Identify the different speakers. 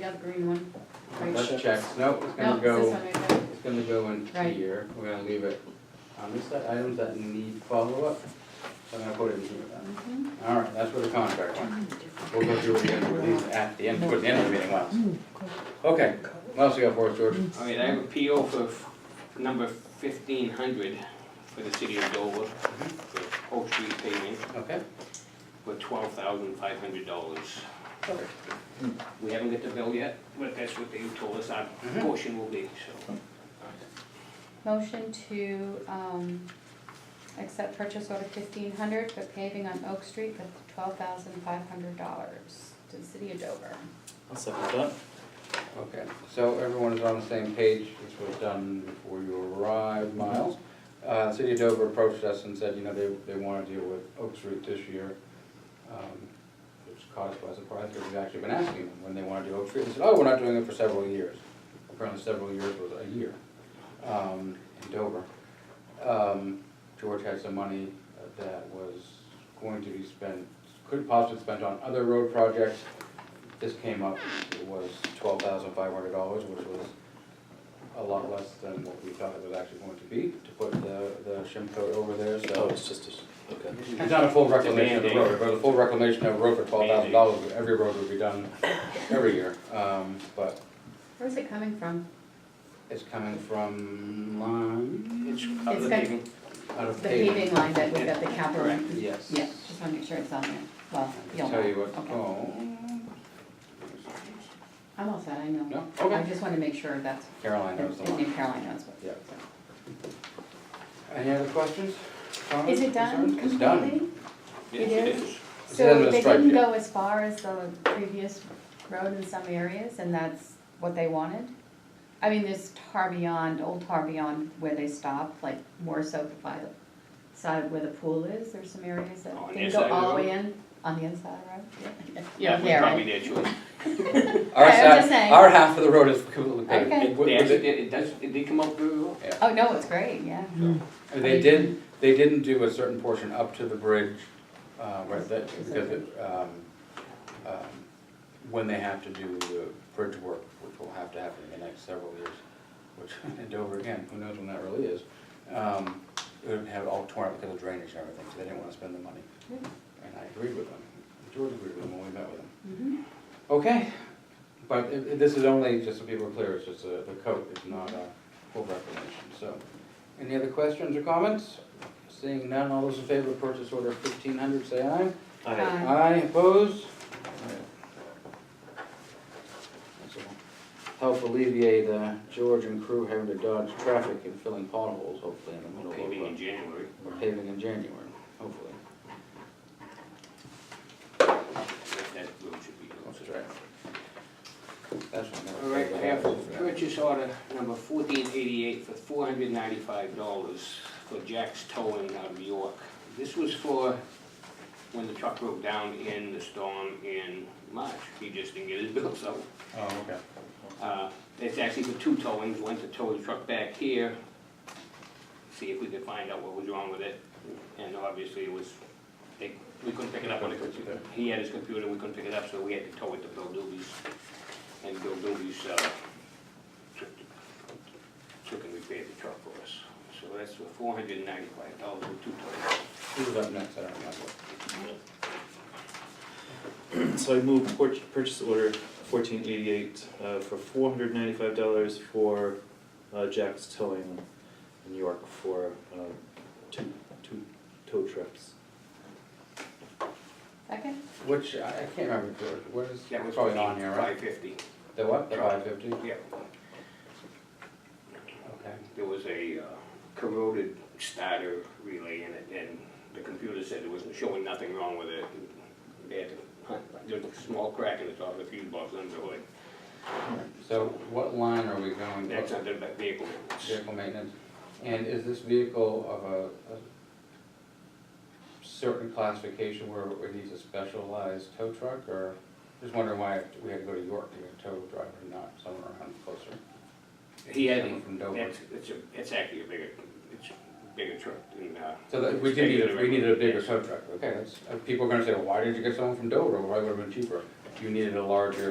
Speaker 1: got the green one. Right.
Speaker 2: That checks, nope, it's
Speaker 1: No,
Speaker 2: gonna
Speaker 1: it's this
Speaker 2: go,
Speaker 1: one right there.
Speaker 2: it's gonna go in
Speaker 1: Right.
Speaker 2: here, we're gonna leave it on this side, items that need follow-up. So I'm gonna put it in here then.
Speaker 1: Mhm.
Speaker 2: Alright, that's where the contract went. We'll go through it again with these at the end, towards the end of the meeting, Miles. Okay, what else you got for us, George?
Speaker 3: All right, I have a PO for f- number fifteen hundred for the city of Dover,
Speaker 2: Mm-hmm.
Speaker 3: for Oak Street paving,
Speaker 2: Okay,
Speaker 3: for twelve thousand five hundred dollars.
Speaker 2: perfect. Hmm.
Speaker 3: We haven't got the bill yet, but that's what they told us our
Speaker 2: Mhm.
Speaker 3: portion will be, so.
Speaker 1: Motion to, um, accept purchase order fifteen hundred for paving on Oak Street for twelve thousand five hundred dollars to the city of Dover.
Speaker 4: I'll second that.
Speaker 2: Okay, so everyone is on the same page, this was done before you arrived, Miles. Uh, City of Dover approached us and said, you know, they, they wanna deal with Oak Street this year. um, Which caught us by surprise, because we've actually been asking them when they wanna do Oak Street, they said, oh, we're not doing it for several years. Apparently several years was a year, um, in Dover. Um, George had some money that was going to be spent, could possibly spent on other road projects. This came up, it was twelve thousand five hundred dollars, which was a lot less than what we thought it was actually going to be, to put the, the shim coat over there, so.
Speaker 4: Oh, it's just a, okay.
Speaker 2: It's not a full reclamation of the
Speaker 3: Demanding.
Speaker 2: road, but a full reclamation of a road for twelve thousand dollars, every road would be done every year. Um, but
Speaker 1: Where's it coming from?
Speaker 2: it's coming from line,
Speaker 3: It's other
Speaker 1: got-
Speaker 3: paving,
Speaker 2: out of
Speaker 1: The
Speaker 2: paving.
Speaker 1: paving line that we got the capital.
Speaker 2: Yes.
Speaker 1: Yeah, just wanna make sure it's on there. Well,
Speaker 2: I
Speaker 1: you'll
Speaker 2: can tell you what,
Speaker 1: know. Okay.
Speaker 2: oh.
Speaker 1: I'm all set, I know.
Speaker 2: No,
Speaker 1: I
Speaker 2: okay.
Speaker 1: just wanna make sure that's,
Speaker 2: Caroline knows the
Speaker 1: and
Speaker 2: line.
Speaker 1: Caroline knows what.
Speaker 2: Yeah. Any other questions? comments,
Speaker 1: Is it done
Speaker 2: concerns?
Speaker 1: completely?
Speaker 2: It's done.
Speaker 3: yes,
Speaker 1: It
Speaker 3: it
Speaker 1: is?
Speaker 3: is.
Speaker 2: It's in
Speaker 1: So
Speaker 2: the
Speaker 1: they
Speaker 2: stripe,
Speaker 1: didn't
Speaker 2: yeah.
Speaker 1: go as far as the previous road in some areas, and that's what they wanted? I mean, there's tar beyond, old tar beyond where they stopped, like more so by the side where the pool is, there's some areas that
Speaker 3: On the
Speaker 1: didn't
Speaker 3: inside
Speaker 1: go
Speaker 3: of the
Speaker 1: all the
Speaker 3: road?
Speaker 1: way in, on the inside of the road?
Speaker 3: Yeah,
Speaker 1: Yeah,
Speaker 3: but probably their choice.
Speaker 2: Our
Speaker 1: Okay, I was
Speaker 2: side,
Speaker 1: just saying.
Speaker 2: our half of the road is completely paved.
Speaker 1: Okay.
Speaker 3: It,
Speaker 2: With-
Speaker 3: they
Speaker 2: with
Speaker 3: actually,
Speaker 2: it-
Speaker 3: did- it does, it did come out very well.
Speaker 1: Oh, no, it's great, yeah.
Speaker 2: And They did, they didn't do a certain portion up to the bridge, uh, right, that, because it, um, um, when they have to do the bridge work, which will have to happen in the next several years, which, in Dover again, who knows when that really is, um, it would have all torn up because of drainage and everything, so they didn't wanna spend the money.
Speaker 1: Yeah.
Speaker 2: And I agreed with them, George agreed with them when we met with them.
Speaker 1: Mhm.
Speaker 2: Okay, but i- i- this is only, just so people are clear, it's just a, the coat, it's not a full reclamation, so. Any other questions or comments? Seeing none, all those in favor of purchase order fifteen hundred, say aye.
Speaker 1: Aye.
Speaker 2: Aye, opposed? This will Help alleviate, uh, George and crew having to dodge traffic and filling potholes, hopefully, in the middle of.
Speaker 3: Paving
Speaker 2: uh,
Speaker 3: in January.
Speaker 2: Or paving in January, hopefully.
Speaker 3: That that road should be closed.
Speaker 2: That's right. That's what I'm
Speaker 3: All
Speaker 2: gonna.
Speaker 3: right, I have purchase order number fourteen eighty-eight for four hundred ninety-five dollars for Jack's Towing out of York. This was for when the truck broke down in the storm in March. He just didn't get his bill, so,
Speaker 2: Oh, okay.
Speaker 3: uh, it's actually for two towings, one to tow the truck back here, see if we could find out what was wrong with it. And obviously it was, they, we couldn't pick it up on the computer. He had his computer, we couldn't pick it up, so we had to tow it to Bill Doobie's. And Bill Doobie's, uh, took, took and repaired the truck for us. So that's for four hundred and ninety-five dollars for two towings.
Speaker 2: Who's up next? I don't remember.
Speaker 4: So I move por- purchase order fourteen eighty-eight, uh, for four hundred ninety-five dollars for, uh, Jack's Towing in New York for, uh, two, two tow trucks.
Speaker 1: Second?
Speaker 2: Which, I I can't remember, George, what is,
Speaker 3: That was
Speaker 2: probably on here, right?
Speaker 3: Five fifty,
Speaker 2: The what, the five fifty?
Speaker 3: yeah.
Speaker 2: Okay.
Speaker 3: There was a uh, corroded starter relay in it, and the computer said it was showing nothing wrong with it. They had to hunt, there was a small crack in the top of the fuse box under the hood.
Speaker 2: So what line are we going?
Speaker 3: That's under the vehicle. maintenance.
Speaker 2: Vehicle maintenance, and is this vehicle of a, a certain classification where it needs a specialized tow truck, or? Just wondering why we had to go to York to get a tow driver, and not somewhere around closer.
Speaker 3: He had,
Speaker 2: Someone from Dover.
Speaker 3: that's, it's a, it's actually a bigger, it's a bigger truck than, uh.
Speaker 2: So that, we did need, a- we needed a bigger tow truck, okay, that's, uh, people are gonna say, well, why didn't you get someone from Dover, why would've been cheaper? You needed a larger